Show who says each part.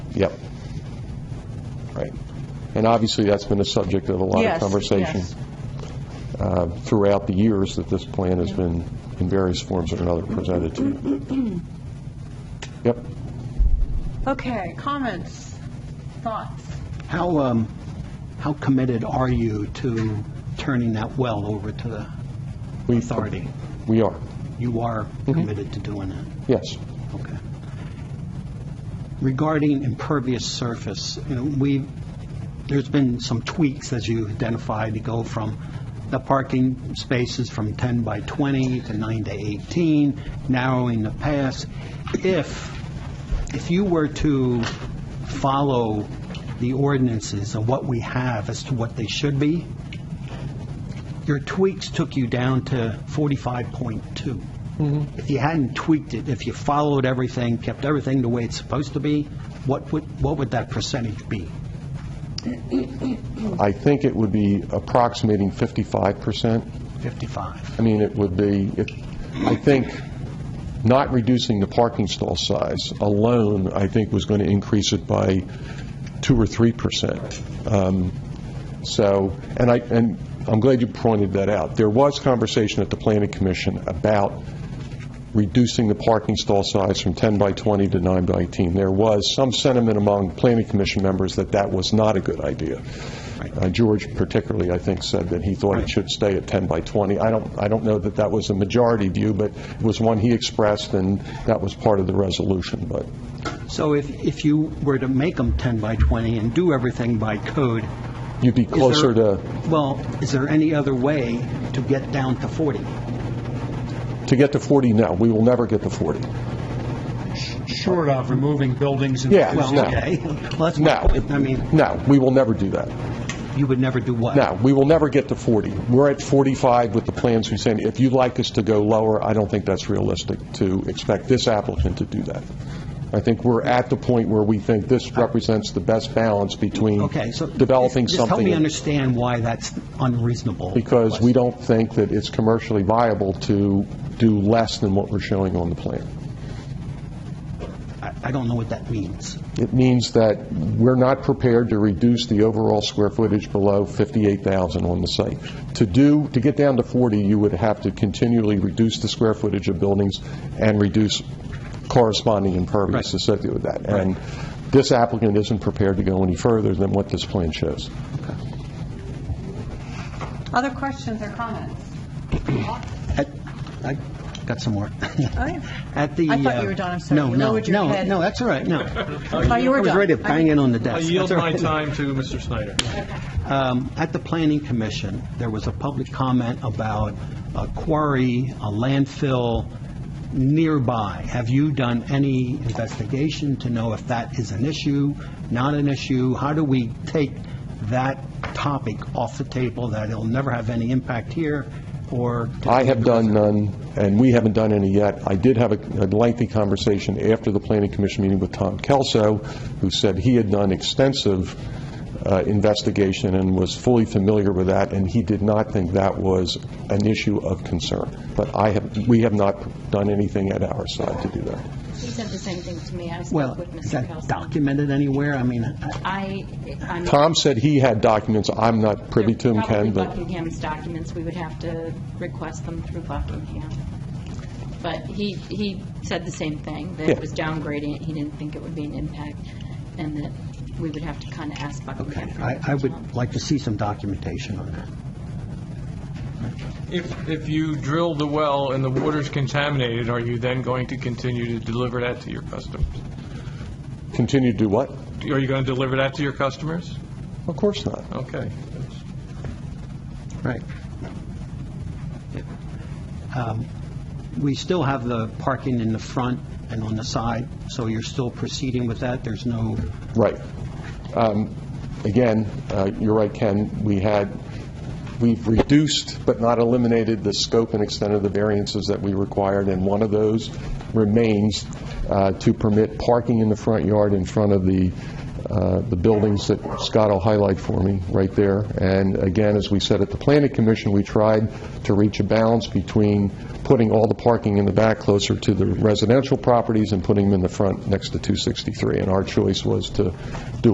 Speaker 1: Yep. Right. And obviously, that's been a subject of a lot of
Speaker 2: Yes,
Speaker 1: conversation
Speaker 2: yes.
Speaker 1: uh, throughout the years that this plan has been, in various forms or another, presented to you. Yep.
Speaker 2: Okay, comments, thoughts?
Speaker 3: How, um, how committed are you to turning that well over to the
Speaker 1: We-
Speaker 3: authority?
Speaker 1: We are.
Speaker 3: You are committed to doing that?
Speaker 1: Yes.
Speaker 3: Okay. Regarding impervious surface, you know, we, there's been some tweaks, as you identified, to go from the parking spaces from 10 by 20 to 9 to 18, narrowing the pass. If, if you were to follow the ordinances of what we have as to what they should be, your tweaks took you down to 45.2. If you hadn't tweaked it, if you followed everything, kept everything the way it's supposed to be, what would, what would that percentage be?
Speaker 1: I think it would be approximating 55%.
Speaker 3: 55?
Speaker 1: I mean, it would be, it- I think, not reducing the parking stall size alone, I think, was going to increase it by 2 or 3%. Um, So, and I, and I'm glad you pointed that out. There was conversation at the Planning Commission about reducing the parking stall size from 10 by 20 to 9 by 18. There was some sentiment among Planning Commission members that that was not a good idea. Uh, George particularly, I think, said that he thought it should stay at 10 by 20. I don't, I don't know that that was a majority view, but it was one he expressed, and that was part of the resolution, but
Speaker 3: So if, if you were to make them 10 by 20 and do everything by code,
Speaker 1: you'd be
Speaker 3: is
Speaker 1: closer
Speaker 3: there-
Speaker 1: to,
Speaker 3: Well, is there any other way to get down to 40?
Speaker 1: to get to 40 now. We will never get to 40.
Speaker 4: Short of removing buildings and...
Speaker 1: Yeah.
Speaker 3: Well,
Speaker 1: No.
Speaker 3: okay, well, that's my
Speaker 1: No.
Speaker 3: point. I mean,
Speaker 1: No, we will never do that.
Speaker 3: you would never do what?
Speaker 1: No, we will never get to 40. We're at 45 with the plans we sent. If you'd like us to go lower, I don't think that's realistic to expect this applicant to do that. I think we're at the point where we think this represents the best balance between
Speaker 3: Okay, so...
Speaker 1: developing
Speaker 3: Just help me
Speaker 1: something,
Speaker 3: understand why that's unreasonable.
Speaker 1: because we don't think that it's commercially viable to do less than what we're showing on the plan.
Speaker 3: I I don't know what that means.
Speaker 1: It means that we're not prepared to reduce the overall square footage below 58,000 on the site. To do, to get down to 40, you would have to continually reduce the square footage of buildings and reduce corresponding impervious
Speaker 3: Right.
Speaker 1: associated with that. And this applicant isn't prepared to go any further than what this plan shows.
Speaker 2: Other questions or comments?
Speaker 3: At- I got some more.
Speaker 2: Oh, yeah.
Speaker 3: At the...
Speaker 2: I thought you
Speaker 3: uh,
Speaker 2: were done, I'm sorry.
Speaker 3: No,
Speaker 2: You
Speaker 3: no,
Speaker 2: lowered your
Speaker 3: no,
Speaker 2: head.
Speaker 3: no, that's all right, no.
Speaker 2: I thought you were
Speaker 3: I was
Speaker 2: done.
Speaker 3: ready to bang it on the
Speaker 4: I
Speaker 3: desk.
Speaker 4: yield
Speaker 3: That's all
Speaker 4: my
Speaker 3: right.
Speaker 4: time to Mr. Snyder.
Speaker 3: Um, At the Planning Commission, there was a public comment about a quarry, a landfill nearby. Have you done any investigation to know if that is an issue, not an issue? How do we take that topic off the table, that it'll never have any impact here, or...
Speaker 1: I have done uh, none, and we haven't done any yet. I did have a a lengthy conversation after the Planning Commission meeting with Tom Kelso, who said he had done extensive uh, investigation and was fully familiar with that, and he did not think that was an issue of concern. But I have, we have not done anything at our side to do that.
Speaker 5: He said the same thing to me. I
Speaker 3: Well,
Speaker 5: spoke with
Speaker 3: is
Speaker 5: Mr.
Speaker 3: that
Speaker 5: Kelso.
Speaker 3: documented anywhere? I mean, I-
Speaker 5: I, I'm.
Speaker 1: Tom said he had documents. I'm not privy to them, Ken,
Speaker 5: Probably
Speaker 1: but
Speaker 5: Buckingham's documents. We would have to request them through Buckingham. But he, he said the same thing, that
Speaker 1: Yeah.
Speaker 5: it was downgrading. it. He didn't think it would be an impact and that we would have to kind of ask Buckingham. for
Speaker 3: I I
Speaker 5: information.
Speaker 3: would like to see some documentation on that.
Speaker 4: If, if you drill the well and the water's contaminated, are you then going to continue to deliver that to your customers?
Speaker 1: continue to do what?
Speaker 4: Are you going to deliver that to your customers?
Speaker 1: Of course not.
Speaker 4: Okay.
Speaker 3: Right. Um, We still have the parking in the front and on the side, so you're still proceeding with that? There's no,
Speaker 1: Right. Um, Again, uh, you're right, Ken, we had, we've reduced but not eliminated the scope and extent of the variances that we required, and one of those remains uh, to permit parking in the front yard in front of the, uh, the buildings that Scott will highlight for me, right there. And again, as we said at the planning commission, we tried to reach a balance between putting all the parking in the back closer to the residential properties and putting them in the front next to 263. And our choice was to do